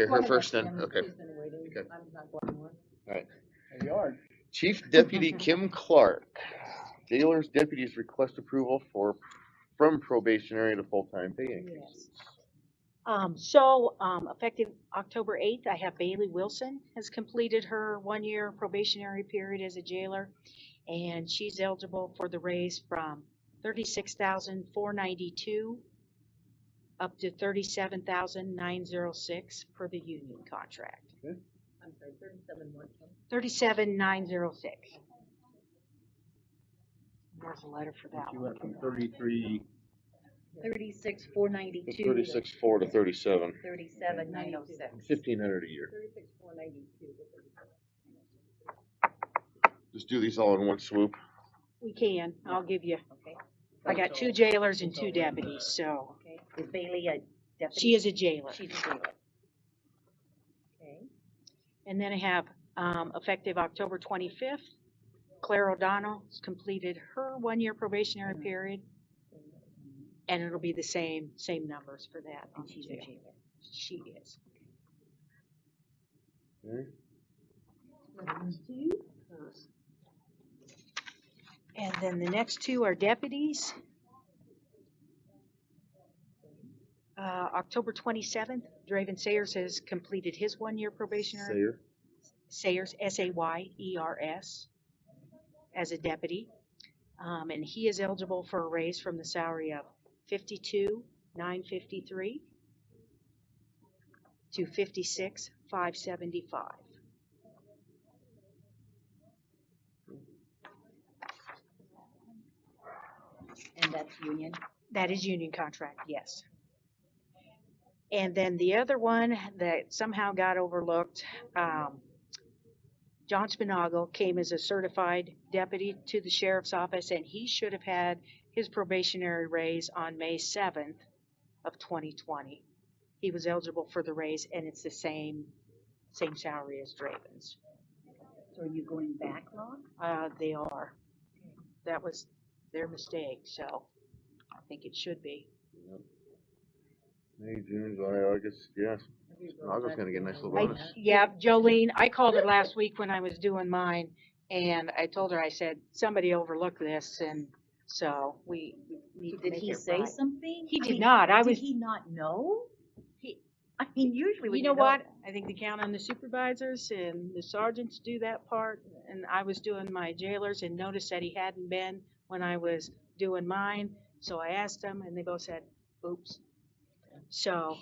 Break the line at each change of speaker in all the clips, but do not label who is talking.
Hear her
Well,
first
that's
then,
him.
okay.
He's been waiting.
Okay.
I'm not going on.
You are.
Chief Deputy Kim Clark, jailers deputies request approval for, from probationary to full-time pay increases.
Um, so, um, effective October eighth, I have Bailey Wilson has completed her one-year probationary period as a jailer. And she's eligible for the raise from thirty-six thousand four ninety-two up to thirty-seven thousand nine zero six per the union contract.
I'm sorry, thirty-seven one ten.
Thirty-seven nine zero six. There's a letter for that
She
one.
went from thirty-three,
Thirty-six, four
From
ninety-two.
thirty-six, four to thirty-seven,
Thirty-seven, nine oh six.
fifteen hundred a year.
Thirty-six four ninety-two.
Just do these all in one swoop.
We can, I'll give you,
Okay,
I got two jailers and two deputies, so
okay. Is Bailey a deputy?
she is a jailer.
She's a jailer. Okay.
And then I have, um, effective October twenty-fifth, Claire O'Donnell has completed her one-year probationary
Mhm.
period. And it'll be the same, same numbers for that. on
And
the
she's a
jail.
jailer.
She is. And then the next two are deputies. Uh, October twenty-seventh, Draven Sayers has completed his one-year probationary
Sayer.
Sayers, S-A-Y-E-R-S, E as a deputy. Um, and he is eligible for a raise from the salary of fifty-two, nine fifty-three to fifty-six, five seventy-five.
And that's union.
That is union contract, yes. And then the other one that somehow got overlooked, um, John Spinagle came as a certified deputy to the sheriff's office and he should have had his probationary raise on May seventh of twenty twenty. He was eligible for the raise and it's the same, same salary as Draven's.
So are you going back long?
Uh, they are. That was their mistake, so I think it should be.
Yep. May, June, July, August, yes. August gonna get a nice little
I,
bonus.
yeah, Jolene, I called her last week when I was doing mine, and I told her, I said, somebody overlooked this, and so we we need to
Did
make
he
it
say
right."
something?
He
I
did
mean,
not, I
Did
was,
he not know?
He-
I mean, usually when
you
you
know what, I think they count on the supervisors and the sergeants do that part, and I was doing my jailers and noticed that he hadn't been when I was doing mine, so I asked them, and they both said, oops. So,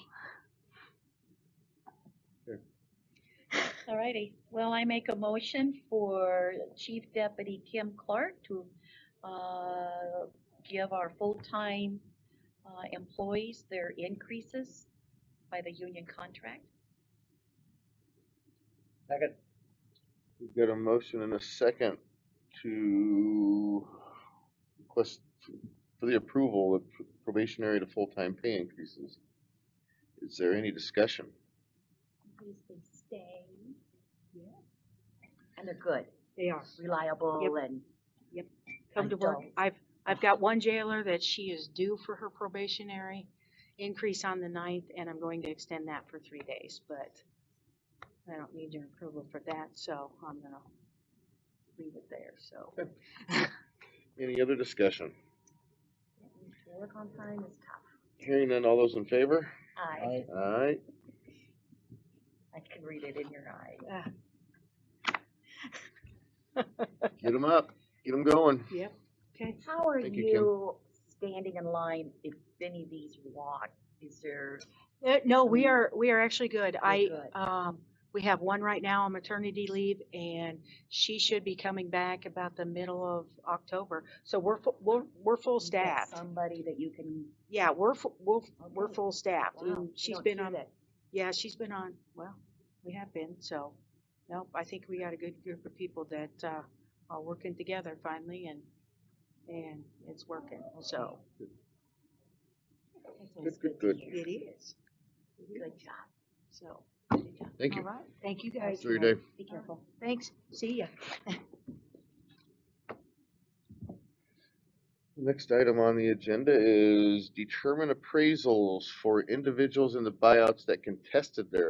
Alrighty, well, I make a motion for Chief Deputy Kim Clark to, uh, give our full-time, uh, employees their increases by the union contract.
second,
We've got a motion and a second to request for the approval of probationary to full-time pay increases. Is there any discussion?
Please they stay. And they're good,
they are.
reliable
Yep.
and.
come to work.
Adults.
I've, I've got one jailer that she is due for her probationary increase on the ninth, and I'm going to extend that for three days, but I don't need your approval for that, so I'm gonna leave it there, so.
Any other discussion?
Work on time is tough.
Hearing none, all those in favor?
I,
Alright,
I can read it in your eye.
get them up, get them going.
Yep, okay.
How are
Thank you, Kim.
you standing in line if any of these walk? Is there?
Uh, No, we are, we are actually good. I,
good.
um, we have one right now on maternity leave and she should be coming back about the middle of October. So we're, fu- we're, we're full
you got
staffed.
Somebody that you can.
Yeah, we're, fu- we're, we're
Okay.
full staffed.
Wow,
and
you
She's
don't
been
see
on,
that.
Yeah, she's been on, well, we have been, so, nope, I think we got a good group of people that, uh, are working together finally and, and it's working, so.
Good, good, good.
It is,
Good job.
so.
Thank
All
you.
right, thank you guys.
Enjoy your day.
Be careful.
Thanks, see ya.
Next item on the agenda is determine appraisals for individuals in the buyouts that contested their